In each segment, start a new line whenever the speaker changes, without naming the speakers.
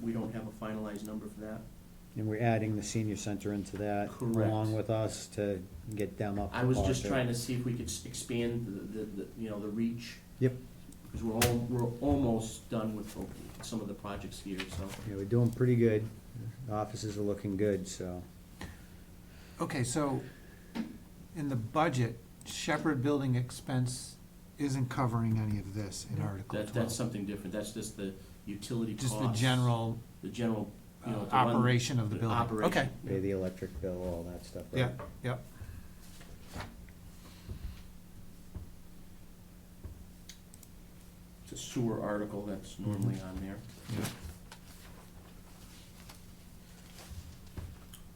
we don't have a finalized number for that.
And we're adding the senior center into that,
Correct.
along with us, to get them up.
I was just trying to see if we could s- expand the, the- the, you know, the reach,
Yep,
because we're all, we're almost done with some of the projects here, so.
yeah, we're doing pretty good. Offices are looking good, so.
Okay, so in the budget, Shepherd Building expense isn't covering any of this in Article
That, that's
twelve.
something different, that's just the utility costs.
Just the general
The general, you know.
uh,
to run
operation of the
the
building.
operation.
Okay,
Pay the electric bill, all that stuff, right?
yeah, yeah.
It's a sewer article that's normally on there.
yeah.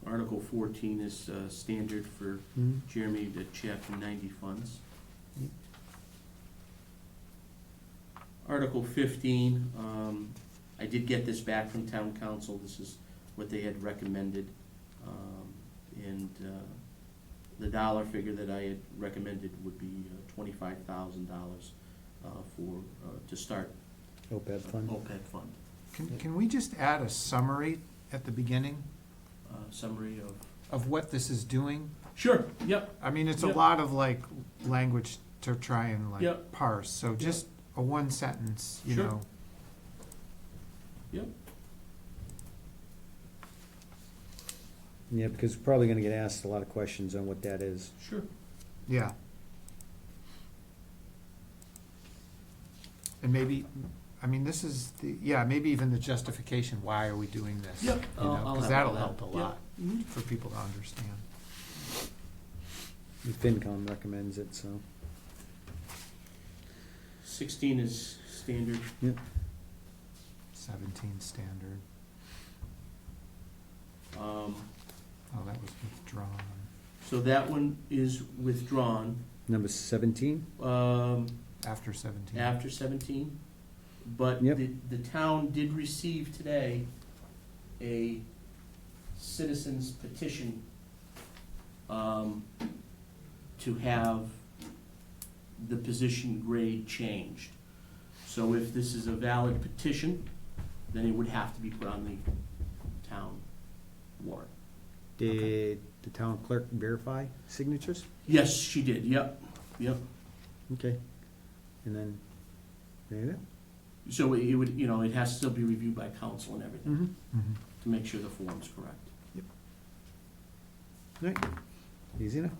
Article fourteen is, uh, standard for
Hmm?
Jeremy to chapter ninety funds.
Yep.
Article fifteen, um, I did get this back from town council, this is what they had recommended. Um, and, uh, the dollar figure that I had recommended would be uh, twenty-five thousand dollars, uh, for, uh, to start.
OPEB fund?
OPEB fund,
Can, can we just add a summary at the beginning
uh, summary of.
of what this is doing?
Sure, yep,
I mean, it's a
Yep.
lot of like language to try and
Yep.
like parse, so just a one sentence, you
Sure.
know.
Yeah, because we're probably gonna get asked a lot of questions on what that is.
sure.
Yeah. And maybe, I mean, this is the, yeah, maybe even the justification, why are we doing this?
Yep,
you
I'll-
know,
I'll have all
Cause that'll
that,
help a
yep.
lot
Mhm.
for people to understand.
FinCom recommends it, so.
Sixteen is standard,
Seventeen standard,
um,
oh, that was withdrawn.
So that one is withdrawn,
Number seventeen?
um,
After seventeen.
after seventeen. But
Yep.
the, the town did receive today a citizen's petition, um, to have the position grade changed. So if this is a valid petition, then it would have to be put on the town warrant.
Did the town clerk verify signatures?
Yes, she did, yep, yep.
Okay. And then, there you
So it would, you know, it has to still be reviewed by council and everything,
Mm-hmm.
Mhm.
to make sure the form's correct.
Right, easy enough.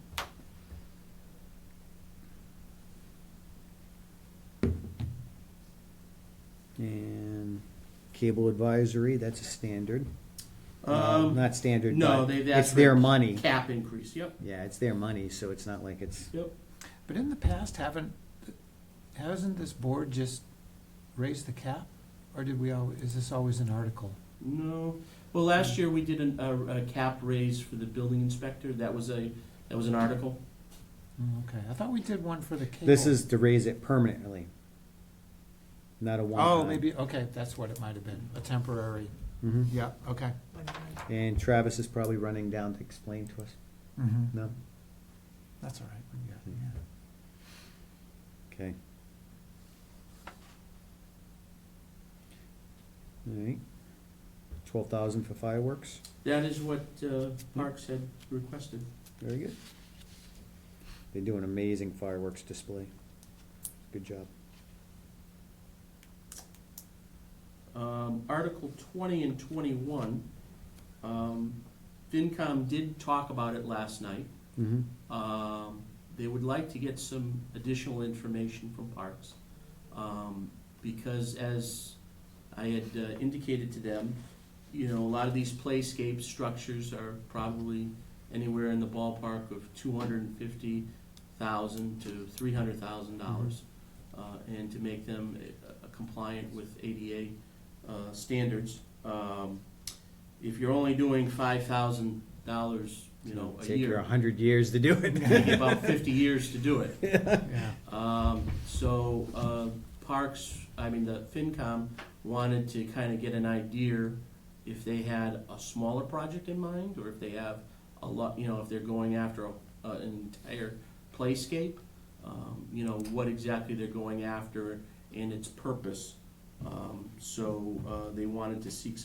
And cable advisory, that's a standard. Uh,
Um,
Not standard,
no,
but
they've
it's
asked
their
for-
money.
cap increase, yep.
Yeah, it's their money, so it's not like it's,
But in the past, haven't, hasn't this board just raised the cap? Or did we al, is this always an article?
No, well, last year we did an, a, a cap raise for the building inspector, that was a, that was an article.
Mm, Okay, I thought we did one for the cable.
this is to raise it permanently. Not a one-time.
Oh, maybe, okay, that's what it might have been, a temporary,
Mhm.
yeah, okay.
And Travis is probably running down to explain to us,
Mm-hmm.
no?
That's all right, yeah,
Yeah. Okay. Alright. Twelve thousand for fireworks,
That is what, uh, Parks had requested.
very good. They do an amazing fireworks display. Good job.
Um, Article twenty and twenty-one, um, FinCom did talk about it last night.
Mm-hmm.
Um, They would like to get some additional information from Parks, um, because as I had uh, indicated to them, you know, a lot of these playscape structures are probably anywhere in the ballpark of two hundred and fifty thousand to three hundred thousand
Mm-hmm.
dollars. uh, And to make them uh, compliant with ADA uh, standards, um, if you're only doing five thousand dollars, you know, a year
Take your a hundred years to do
take
it.
about fifty years to do it.
yeah.
Um, so, uh, Parks, I mean, the FinCom wanted to kind of get an idea if they had a smaller project in mind, or if they have a lot, you know, if they're going after a, uh, an entire playscape, um, you know, what exactly they're going after and its purpose. Um, so, uh, they wanted to seek